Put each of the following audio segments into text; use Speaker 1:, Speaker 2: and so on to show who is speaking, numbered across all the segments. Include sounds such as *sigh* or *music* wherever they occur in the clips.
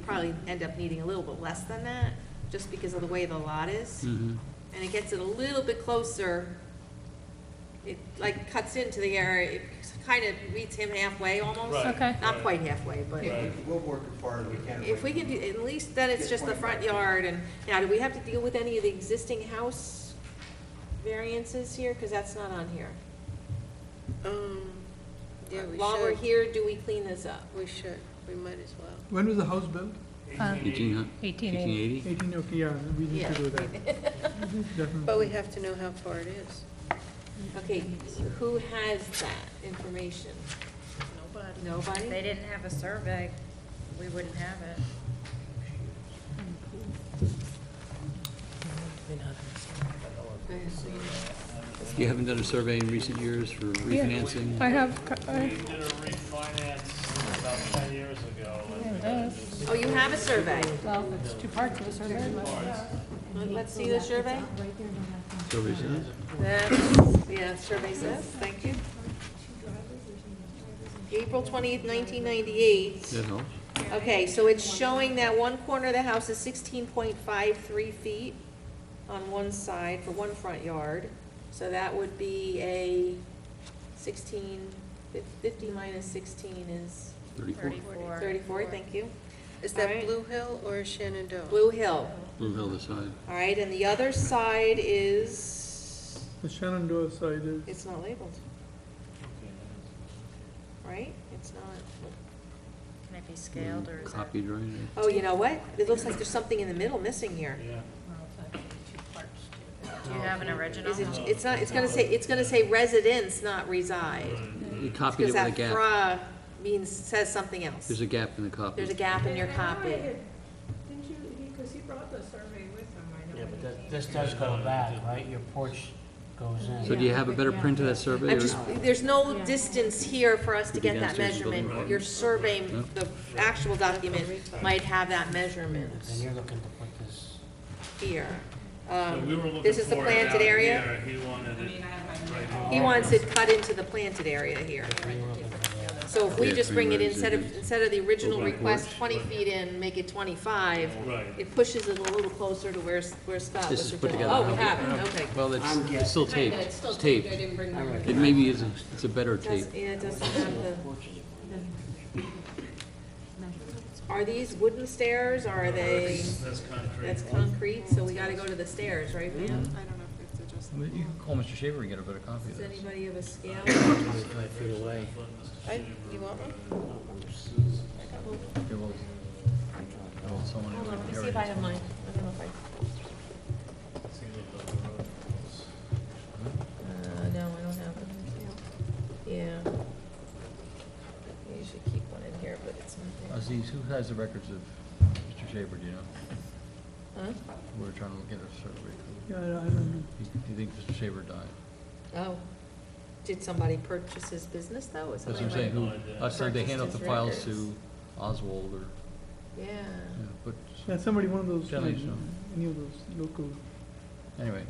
Speaker 1: probably end up needing a little bit less than that, just because of the way the lot is.
Speaker 2: Hmm.
Speaker 3: Mhm.
Speaker 1: And it gets it a little bit closer. It like cuts into the area, it kind of meets him halfway almost.
Speaker 4: Right,
Speaker 5: Okay.
Speaker 1: Not
Speaker 4: right.
Speaker 1: quite halfway, but
Speaker 4: Right.
Speaker 6: We'll work as far as we can.
Speaker 1: if we can, do at least then it's just the front yard and, now, do we have to deal with any of the existing house variances here? Because that's not on here.
Speaker 7: Um, yeah, we
Speaker 1: While we're
Speaker 7: should,
Speaker 1: here, do we clean this up?
Speaker 7: we should, we might as well.
Speaker 8: When was the house built?
Speaker 5: Uh,
Speaker 3: Eighteen hun-
Speaker 5: 1880.
Speaker 3: 1880?
Speaker 8: Eighteen, okay, yeah, we need
Speaker 1: Yeah.
Speaker 8: to do that, *laughs* definitely.
Speaker 7: But we have to know how far it is. Mm-hmm.
Speaker 1: Okay, who has that information?
Speaker 9: Nobody. If they
Speaker 1: Nobody?
Speaker 9: didn't have a survey, we wouldn't have it.
Speaker 3: You haven't done a survey in recent years for
Speaker 5: Yeah, I
Speaker 3: refinancing?
Speaker 5: have, co-
Speaker 4: We
Speaker 5: I-
Speaker 4: did a refinance about ten years ago.
Speaker 5: Yeah,
Speaker 4: and uh,
Speaker 5: it does.
Speaker 1: Oh, you have a survey?
Speaker 5: well, it's two parts of a survey, but
Speaker 1: Let's see the survey?
Speaker 3: Survey says?
Speaker 1: Yeah, survey says, thank you. April twentieth, nineteen ninety-eight.
Speaker 3: That helps.
Speaker 1: Okay, so it's showing that one corner of the house is sixteen point five three feet on one side for one front yard. So that would be a sixteen, fif- fifty minus sixteen is
Speaker 3: 34.
Speaker 9: Thirty-four.
Speaker 1: thirty-four, thank you.
Speaker 7: Is
Speaker 1: All right.
Speaker 7: that Blue Hill or Shenandoah?
Speaker 1: Blue Hill,
Speaker 3: Blue Hill aside.
Speaker 1: all right, and the other side is,
Speaker 8: The Shenandoah side is.
Speaker 1: it's not labeled, right? It's not.
Speaker 9: Can it be scaled or is that?
Speaker 3: Copied, right?
Speaker 1: Oh, you know what? It looks like there's something in the middle missing here.
Speaker 4: Yeah.
Speaker 9: Do you have an original?
Speaker 1: Is it,
Speaker 4: Uh-huh.
Speaker 1: it's not, it's gonna say, it's gonna say residence, not reside.
Speaker 3: You copied it with a
Speaker 1: Because that
Speaker 3: gap.
Speaker 1: fra means, says something else.
Speaker 3: There's a gap in the copy.
Speaker 1: There's a gap in your copy.
Speaker 10: Didn't you, because he brought the survey with him, I know.
Speaker 11: Yeah, but that- this does go back, right? Your porch goes in.
Speaker 3: So do you have a better print of that survey?
Speaker 1: I'm
Speaker 3: or-
Speaker 1: just, there's no distance here for us to
Speaker 3: Could be
Speaker 1: get that
Speaker 3: downstairs in the building
Speaker 1: measurement.
Speaker 3: department.
Speaker 1: Your survey,
Speaker 3: No?
Speaker 1: the actual document might have that measurement
Speaker 11: Then you're looking to put this,
Speaker 1: here.
Speaker 4: So
Speaker 1: Um,
Speaker 4: we were looking
Speaker 1: This is the
Speaker 4: for it out
Speaker 1: planted area.
Speaker 4: here. He wanted it right here.
Speaker 1: He wants it cut into the planted area here.
Speaker 11: you're looking for the-
Speaker 1: So if we
Speaker 3: Yeah,
Speaker 1: just
Speaker 3: three
Speaker 1: bring it in,
Speaker 3: rows,
Speaker 1: instead of,
Speaker 3: it is.
Speaker 1: instead of the original
Speaker 3: Open
Speaker 1: request,
Speaker 3: porch.
Speaker 1: twenty feet in, make it twenty-five,
Speaker 4: Oh, Right.
Speaker 1: it pushes it a little closer to where, where Scott
Speaker 3: This is
Speaker 1: was
Speaker 3: put
Speaker 1: originally.
Speaker 3: together.
Speaker 1: Oh, we have it, okay.
Speaker 3: Well, it's it's still taped.
Speaker 10: It's still
Speaker 3: taped.
Speaker 10: taped, I didn't bring
Speaker 11: I
Speaker 10: mine.
Speaker 3: It
Speaker 11: recognize
Speaker 3: maybe is, a- it's a better tape.
Speaker 1: Does- Yeah, it doesn't have the,
Speaker 11: porches.
Speaker 1: are these wooden stairs, are they,
Speaker 4: That's concrete.
Speaker 1: that's concrete, so we gotta go to the stairs, right, Pam?
Speaker 7: I don't know if it's adjusted.
Speaker 2: You can call Mr. Shaver and get a better copy of
Speaker 1: Does
Speaker 2: this.
Speaker 1: anybody have a scale?
Speaker 11: Twenty-five feet away.
Speaker 7: I, you want one?
Speaker 2: Here, we'll- we'll- someone-
Speaker 1: Hold on, let me
Speaker 2: here
Speaker 1: see
Speaker 2: it
Speaker 1: if I
Speaker 2: is.
Speaker 1: have mine, I don't know if I,
Speaker 4: See what the road was.
Speaker 1: uh, no, I don't have it. Yeah. You should keep one in here, but it's not
Speaker 2: Aziz, Uh, who has the records of Mr. Shaver, do you know?
Speaker 1: there.
Speaker 2: We We're trying to look at a survey.
Speaker 8: Yeah, I I don't know.
Speaker 2: Do you think Mr. Shaver died?
Speaker 1: Huh? Oh. Did somebody purchase his business, though? Is
Speaker 2: That's what
Speaker 1: somebody
Speaker 2: I'm saying,
Speaker 4: no
Speaker 2: who,
Speaker 4: idea.
Speaker 2: I said they hand out
Speaker 1: Purchased
Speaker 2: the
Speaker 1: his
Speaker 2: files to
Speaker 1: records.
Speaker 2: Oswald or,
Speaker 1: like- Yeah.
Speaker 2: yeah, but,
Speaker 8: Yeah, somebody, one of those,
Speaker 2: Generally
Speaker 8: like,
Speaker 2: so.
Speaker 8: any of those local.
Speaker 2: anyway.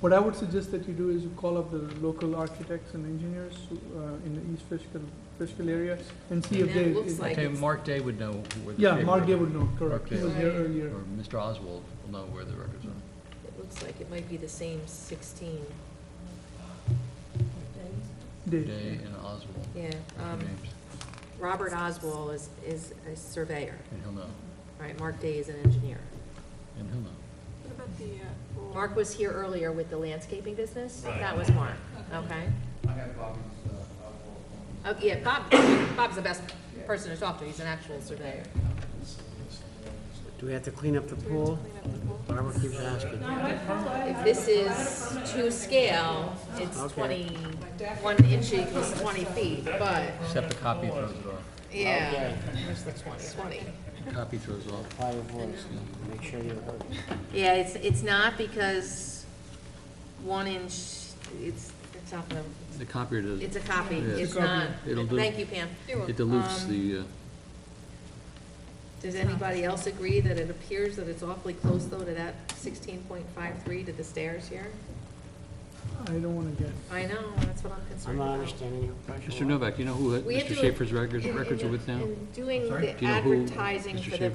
Speaker 8: What I would suggest that you do is you call up the local architects and engineers who, uh, in the East Fishkill, Fishkill area and see
Speaker 1: And
Speaker 8: if
Speaker 1: that
Speaker 8: they.
Speaker 1: looks
Speaker 8: if-
Speaker 1: like
Speaker 2: Okay,
Speaker 1: it's-
Speaker 2: Mark Day would know where the Shaver.
Speaker 8: Yeah, Mark Day would know, correct. He
Speaker 2: Okay.
Speaker 8: was there
Speaker 1: Right.
Speaker 8: earlier.
Speaker 2: Or Mr. Oswald will know where the records are.
Speaker 1: It looks like it might be the same sixteen,
Speaker 8: Day.
Speaker 2: Day and Oswald,
Speaker 1: yeah.
Speaker 2: are
Speaker 1: um,
Speaker 2: the names,
Speaker 1: Robert Oswald is, is a surveyor,
Speaker 2: and he'll know,
Speaker 1: right, Mark Day is an engineer.
Speaker 2: and he'll know.
Speaker 7: What about the, uh,
Speaker 1: Mark was here earlier with the landscaping business,
Speaker 4: Right.
Speaker 1: that was Mark, okay?
Speaker 6: I have Bobby's, uh,
Speaker 1: Oh,
Speaker 6: Oswald.
Speaker 1: yeah, Bob, Bob's the best person to talk to, he's an actual surveyor.
Speaker 11: Do we have to clean up the pool? Barbara keeps asking.
Speaker 1: If this is to scale, it's
Speaker 11: Okay.
Speaker 1: twenty-one inch equals twenty feet, but,
Speaker 2: Except a copy throws it off.
Speaker 1: yeah,
Speaker 11: Okay.
Speaker 1: where's the twenty? Twenty.
Speaker 2: Copy throws off.
Speaker 11: Apply your voice and make sure you heard.
Speaker 1: Yeah, it's, it's not because one inch, it's, it's not gonna,
Speaker 3: The copier does,
Speaker 1: it's a copy,
Speaker 3: Yeah.
Speaker 1: it's not.
Speaker 3: It'll do.
Speaker 1: Thank you, Pam.
Speaker 3: it dilutes
Speaker 1: um,
Speaker 3: the, uh,
Speaker 1: Does anybody else agree that it appears that it's awfully close, though, to that sixteen point five three to the stairs here?
Speaker 8: I don't wanna guess.
Speaker 1: I know, that's what I'm
Speaker 11: I'm
Speaker 1: concerned
Speaker 11: not
Speaker 1: about.
Speaker 11: understanding your question.
Speaker 3: Mr. Novak, you know who uh,
Speaker 1: We have
Speaker 3: Mr.
Speaker 1: to-
Speaker 3: Schaefer's records
Speaker 1: in- in-
Speaker 3: records are with now?
Speaker 1: In doing the
Speaker 3: Do you know who
Speaker 1: advertising
Speaker 3: Mr.
Speaker 1: for the
Speaker 3: Schaefer